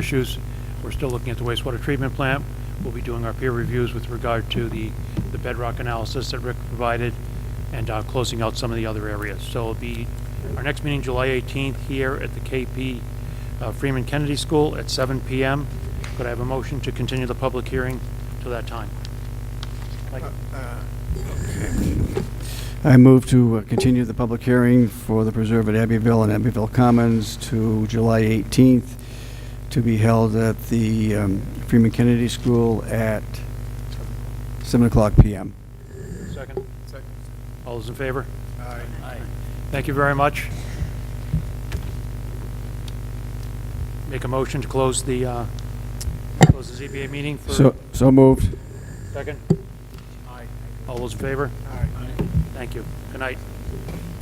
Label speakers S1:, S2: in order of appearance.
S1: issues. We're still looking at the wastewater treatment plant. We'll be doing our peer reviews with regard to the, the bedrock analysis that Rick provided and uh, closing out some of the other areas. So it'll be our next meeting, July 18th, here at the KP uh, Freeman Kennedy School at 7 PM. Could I have a motion to continue the public hearing till that time? Mike?
S2: I move to uh, continue the public hearing for the preserve at Abbeville and Abbeville Commons to July 18th, to be held at the um, Freeman Kennedy School at 7 o'clock PM.
S1: Second? Second. All those in favor? Aye. Thank you very much. Make a motion to close the, uh, close the ZBA meeting for...
S2: So, so moved.
S1: Second? Aye. All those in favor? Aye. Thank you. Good night.